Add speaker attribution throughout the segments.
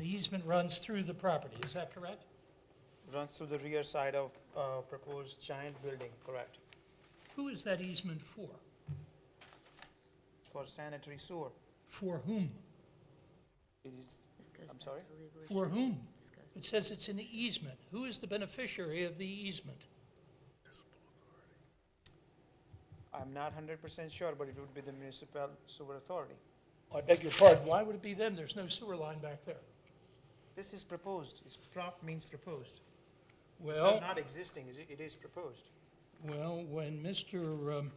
Speaker 1: easement runs through the property, is that correct?
Speaker 2: Runs through the rear side of uh, proposed giant building, correct,
Speaker 1: Who is that easement for?
Speaker 2: for sanitary sewer.
Speaker 1: For whom?
Speaker 2: It is,
Speaker 3: This goes
Speaker 2: I'm
Speaker 3: back
Speaker 2: sorry?
Speaker 3: to legal
Speaker 1: For
Speaker 3: issues.
Speaker 1: whom?
Speaker 3: This goes-
Speaker 1: It says it's an easement. Who is the beneficiary of the easement?
Speaker 2: I'm not hundred percent sure, but it would be the municipal sewer authority.
Speaker 1: I beg your pardon? Why would it be them? There's no sewer line back there.
Speaker 2: This is proposed, it's prop means proposed. It's
Speaker 1: Well.
Speaker 2: not existing, is it It is proposed.
Speaker 1: Well, when Mr., um,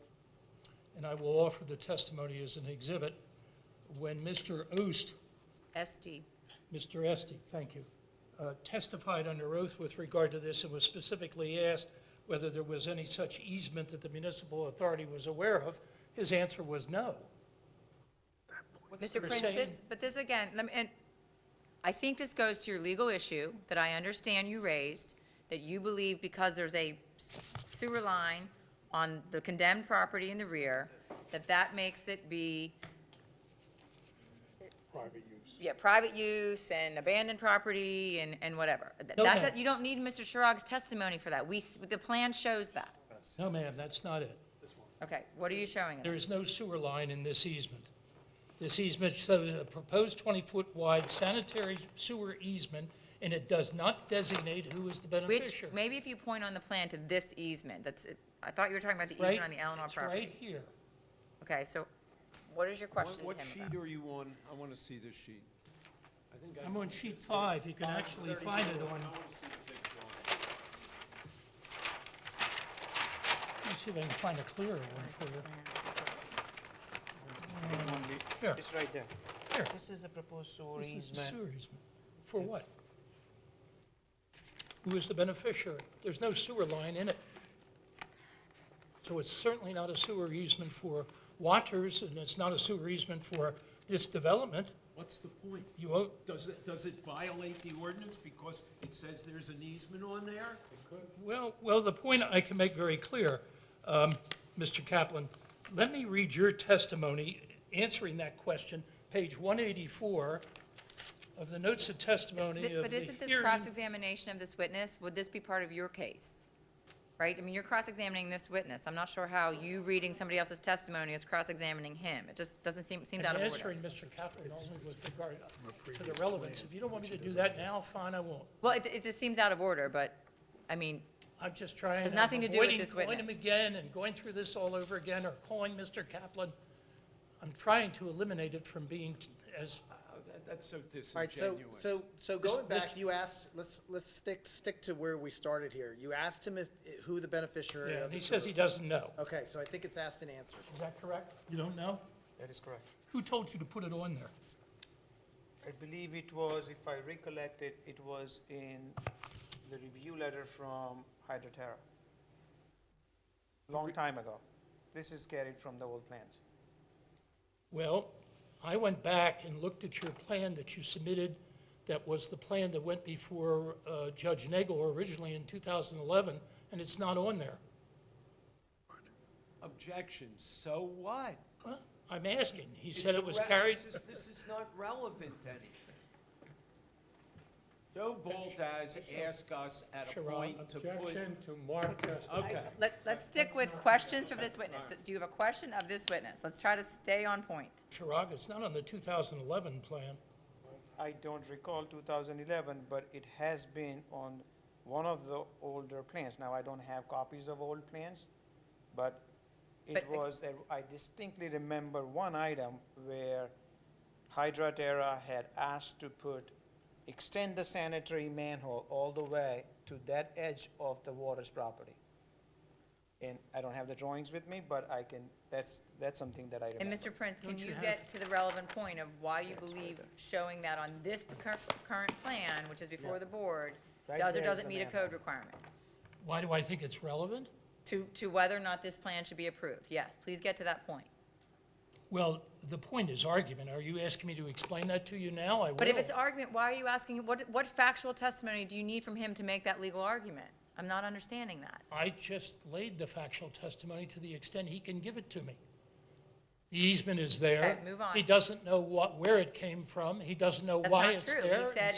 Speaker 1: and I will offer the testimony as an exhibit, when Mr. Oost,
Speaker 3: SD,
Speaker 1: Mr. Estee, thank you, uh, testified under oath with regard to this and was specifically asked whether there was any such easement that the municipal authority was aware of, his answer was no.
Speaker 3: Mr.
Speaker 1: we're
Speaker 3: Prince, this,
Speaker 1: saying-
Speaker 3: but this again, lem- and I think this goes to your legal issue that I understand you raised, that you believe because there's a sewer line on the condemned property in the rear, that that makes it be. Private use. Yeah, private use and abandoned property and, and whatever. Th-
Speaker 1: No,
Speaker 3: that-
Speaker 1: ma'am.
Speaker 3: you don't need Mr. Shirag's testimony for that. We, s- the plan shows that.
Speaker 1: No, ma'am, that's not it.
Speaker 3: Okay, what are you showing us?
Speaker 1: There is no sewer line in this easement. This easement shows a proposed 20-foot wide sanitary sewer easement, and it does not designate who is the
Speaker 3: Which,
Speaker 1: beneficiary.
Speaker 3: maybe if you point on the plan to this easement, that's, I thought you were talking about the
Speaker 1: Right?
Speaker 3: easement on the Eleanor
Speaker 1: It's
Speaker 3: property.
Speaker 1: right here.
Speaker 3: Okay, so what is your
Speaker 4: What-
Speaker 3: question to
Speaker 4: What
Speaker 3: him
Speaker 4: sheet
Speaker 3: about?
Speaker 4: are you on? I want to see this sheet. I think I.
Speaker 1: I'm on sheet five, you can actually find it on,
Speaker 4: I want to see the big drawing.
Speaker 1: let me see if I can find a clearer one for you. Here,
Speaker 2: It's right there.
Speaker 1: here,
Speaker 2: This is the proposed sewer
Speaker 1: this is the
Speaker 2: easement.
Speaker 1: sewer easement. For what? Who is the beneficiary? There's no sewer line in it. So it's certainly not a sewer easement for Waters, and it's not a sewer easement for this development.
Speaker 4: What's the point?
Speaker 1: You own,
Speaker 4: Does it, does it violate the ordinance because it says there's an easement on there?
Speaker 1: Well, well, the point I can make very clear, um, Mr. Kaplan, let me read your testimony answering that question, page 184 of the notes of testimony
Speaker 3: Th-
Speaker 1: of
Speaker 3: But
Speaker 1: the
Speaker 3: isn't this
Speaker 1: hearing.
Speaker 3: cross-examination of this witness, would this be part of your case? Right? I mean, you're cross-examining this witness. I'm not sure how you reading somebody else's testimony is cross-examining him. It just doesn't seem, seems
Speaker 1: I'm
Speaker 3: out of order.
Speaker 1: answering Mr. Kaplan only with regard to the relevance. If you don't want me to do that now, fine, I won't.
Speaker 3: Well, it, it just seems out of order, but, I mean,
Speaker 1: I'm just trying.
Speaker 3: Has
Speaker 1: I'm
Speaker 3: nothing to do with
Speaker 1: avoiding
Speaker 3: this
Speaker 1: Calling him
Speaker 3: witness.
Speaker 1: again and going through this all over again or calling Mr. Kaplan. I'm trying to eliminate it from being t- as
Speaker 4: Oh, that- That's so
Speaker 5: All right, so,
Speaker 4: disingenuous.
Speaker 5: so, so going
Speaker 1: Mr.
Speaker 5: back, you asked, let's, let's stick, stick to where we started here. You asked him if, who the beneficiary
Speaker 1: Yeah,
Speaker 5: of
Speaker 1: and
Speaker 5: the
Speaker 1: he says he
Speaker 5: sewer.
Speaker 1: doesn't know.
Speaker 5: Okay, so I think it's asked and answered.
Speaker 1: Is that correct? You don't know?
Speaker 2: That is correct.
Speaker 1: Who told you to put it on there?
Speaker 2: I believe it was, if I recollect it, it was in the review letter from Hydroterra. Long time ago. This is carried from the old plans.
Speaker 1: Well, I went back and looked at your plan that you submitted, that was the plan that went before uh, Judge Nagel originally in 2011, and it's not on there.
Speaker 4: Objection, so what?
Speaker 1: Huh? I'm asking. He said
Speaker 4: It's
Speaker 1: it was
Speaker 4: irre-
Speaker 1: carried,
Speaker 4: This is, this is not relevant to anything. Joe Baldass asked us at a
Speaker 1: Sure, I'll
Speaker 4: point to put.
Speaker 6: Objection to Mark Testa.
Speaker 4: Okay.
Speaker 3: let, let's stick with questions from this witness. Do you have a question of this witness? Let's try to stay on point.
Speaker 1: Chirag, it's not on the 2011 plan.
Speaker 2: I don't recall 2011, but it has been on one of the older plans. Now, I don't have copies of old plans, but it
Speaker 3: But-
Speaker 2: was, that I distinctly remember one item where Hydra Terra had asked to put, extend the sanitary manhole all the way to that edge of the water's property. And I don't have the drawings with me, but I can, that's, that's something that I
Speaker 3: And
Speaker 2: remember.
Speaker 3: Mr. Prince, can
Speaker 1: Don't you
Speaker 3: you
Speaker 1: have-
Speaker 3: get to the relevant point of why you believe showing that on this cur- current plan, which is before the board,
Speaker 2: Right
Speaker 3: does or
Speaker 2: there is
Speaker 3: doesn't
Speaker 2: the
Speaker 3: meet a
Speaker 2: manhole.
Speaker 3: code requirement?
Speaker 1: Why do I think it's relevant?
Speaker 3: To, to whether or not this plan should be approved? Yes, please get to that point.
Speaker 1: Well, the point is argument. Are you asking me to explain that to you now? I will.
Speaker 3: But if it's argument, why are you asking, what, what factual testimony do you need from him to make that legal argument? I'm not understanding that.
Speaker 1: I just laid the factual testimony to the extent he can give it to me. The easement is there.
Speaker 3: Okay, move on.
Speaker 1: He doesn't know what, where it came from. He doesn't know
Speaker 3: That's
Speaker 1: why
Speaker 3: not
Speaker 1: it's
Speaker 3: true. He
Speaker 1: there. and
Speaker 3: said